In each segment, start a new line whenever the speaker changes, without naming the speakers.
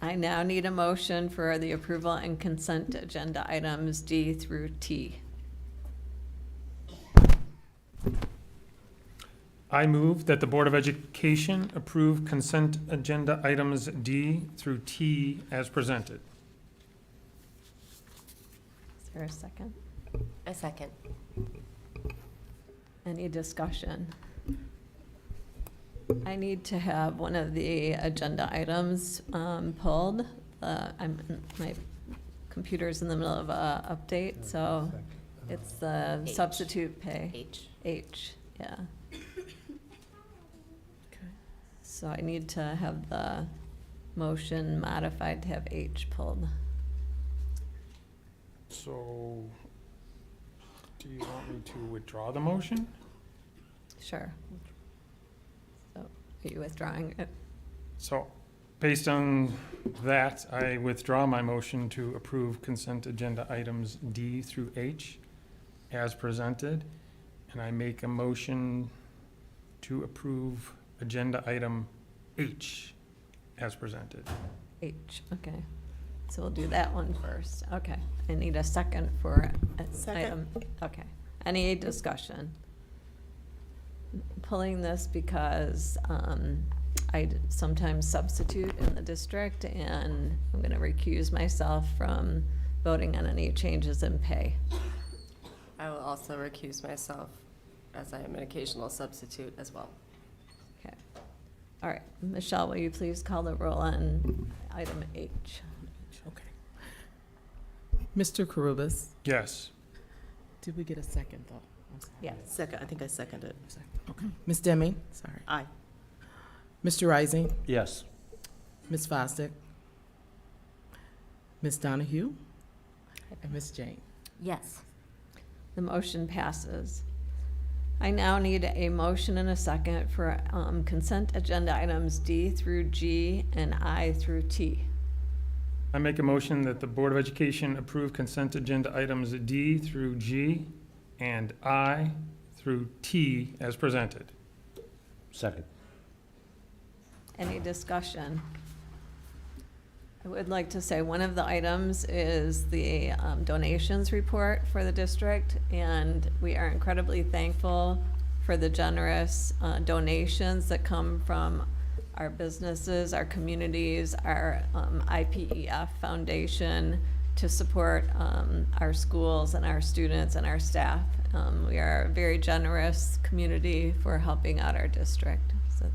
I now need a motion for the approval and consent agenda items D through T.
I move that the Board of Education approve consent agenda items D through T as presented.
Is there a second?
A second.
Any discussion? I need to have one of the agenda items um, pulled. Uh, I'm, my computer's in the middle of a update, so uh, it's the
H.
substitute pay,
H.
H, yeah. So I need to have the motion modified to have H pulled.
So, do you want me to withdraw the motion?
Sure. So are you withdrawing it?
So, based on that, I withdraw my motion to approve consent agenda items D through H as presented, and I make a motion to approve agenda item H as presented.
H, okay. So we'll do that one first. Okay. I need a second for uh, item.
Second.
Okay. Any discussion? Pulling this because um, I d- sometimes substitute in the district, and I'm going to recuse myself from voting on any changes in pay.
I will also recuse myself as I am an occasional substitute as well.
All right. Michelle, will you please call the roll on item H?
Okay. Mr. Carubus,
Yes.
did we get a second though? I'm sorry.
Yes.
Second, I think I seconded.
Ms. Demme, sorry.
Aye.
Mr. Rising,
Yes.
Ms. Fosdick, Ms. Donahue, and Ms. Jane.
Yes.
The motion passes. I now need a motion and a second for um, consent agenda items D through G and I through T.
I make a motion that the Board of Education approve consent agenda items D through G and I through T as presented.
Second.
Any discussion? I would like to say one of the items is the um, donations report for the district, and we are incredibly thankful for the generous uh, donations that come from our businesses, our communities, our um, IPEF Foundation to support um, our schools and our students and our staff. Um, We are a very generous community for helping out our district, so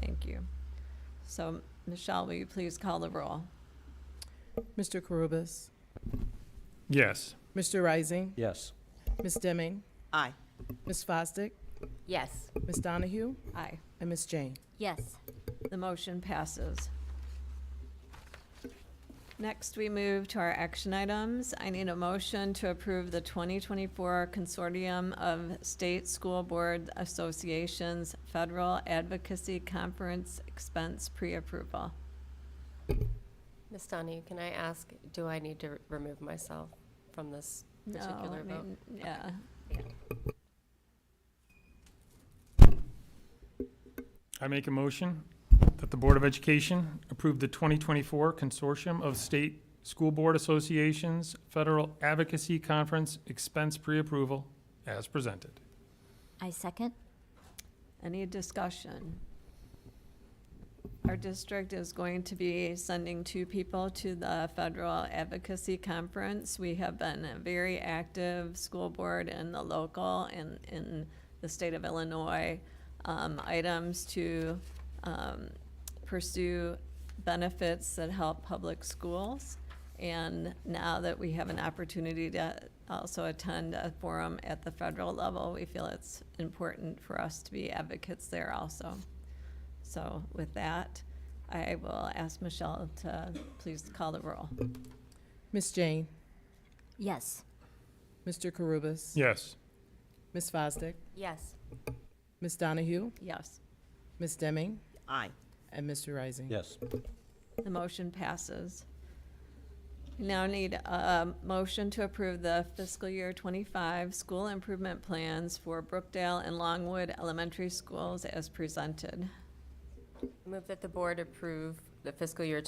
thank you. So, Michelle, will you please call the roll?
Mr. Carubus,
Yes.
Mr. Rising,
Yes.
Ms. Demme,
Aye.
Ms. Fosdick,
Yes.
Ms. Donahue,
Aye.
and Ms. Jane.
Yes.
The motion passes. Next, we move to our action items. I need a motion to approve the 2024 Consortium of State School Board Associations Federal Advocacy Conference Expense Pre-Approval.
Ms. Donahue, can I ask, do I need to r- remove myself from this
No,
particular
I
vote?
mean, Yeah.
I make a motion that the Board of Education approve the 2024 Consortium of State School Board Associations Federal Advocacy Conference Expense Pre-Approval as presented.
I second.
Any discussion? Our district is going to be sending two people to the Federal Advocacy Conference. We have been a very active school board in the local and in the state of Illinois, um, items to, um, pursue benefits that help public schools. And now that we have an opportunity to also attend a forum at the federal level, we feel it's important for us to be advocates there also. So with that, I will ask Michelle to please call the roll.
Ms. Jane,
Yes.
Mr. Carubus,
Yes.
Ms. Fosdick,
Yes.
Ms. Donahue,
Yes,
Ms. Demme,
Aye.
and Mr. Rising.
Yes.
the motion passes. Now need a motion to approve the fiscal year twenty-five school improvement plans for Brookdale and Longwood Elementary Schools as presented.
Move that the board approve the fiscal year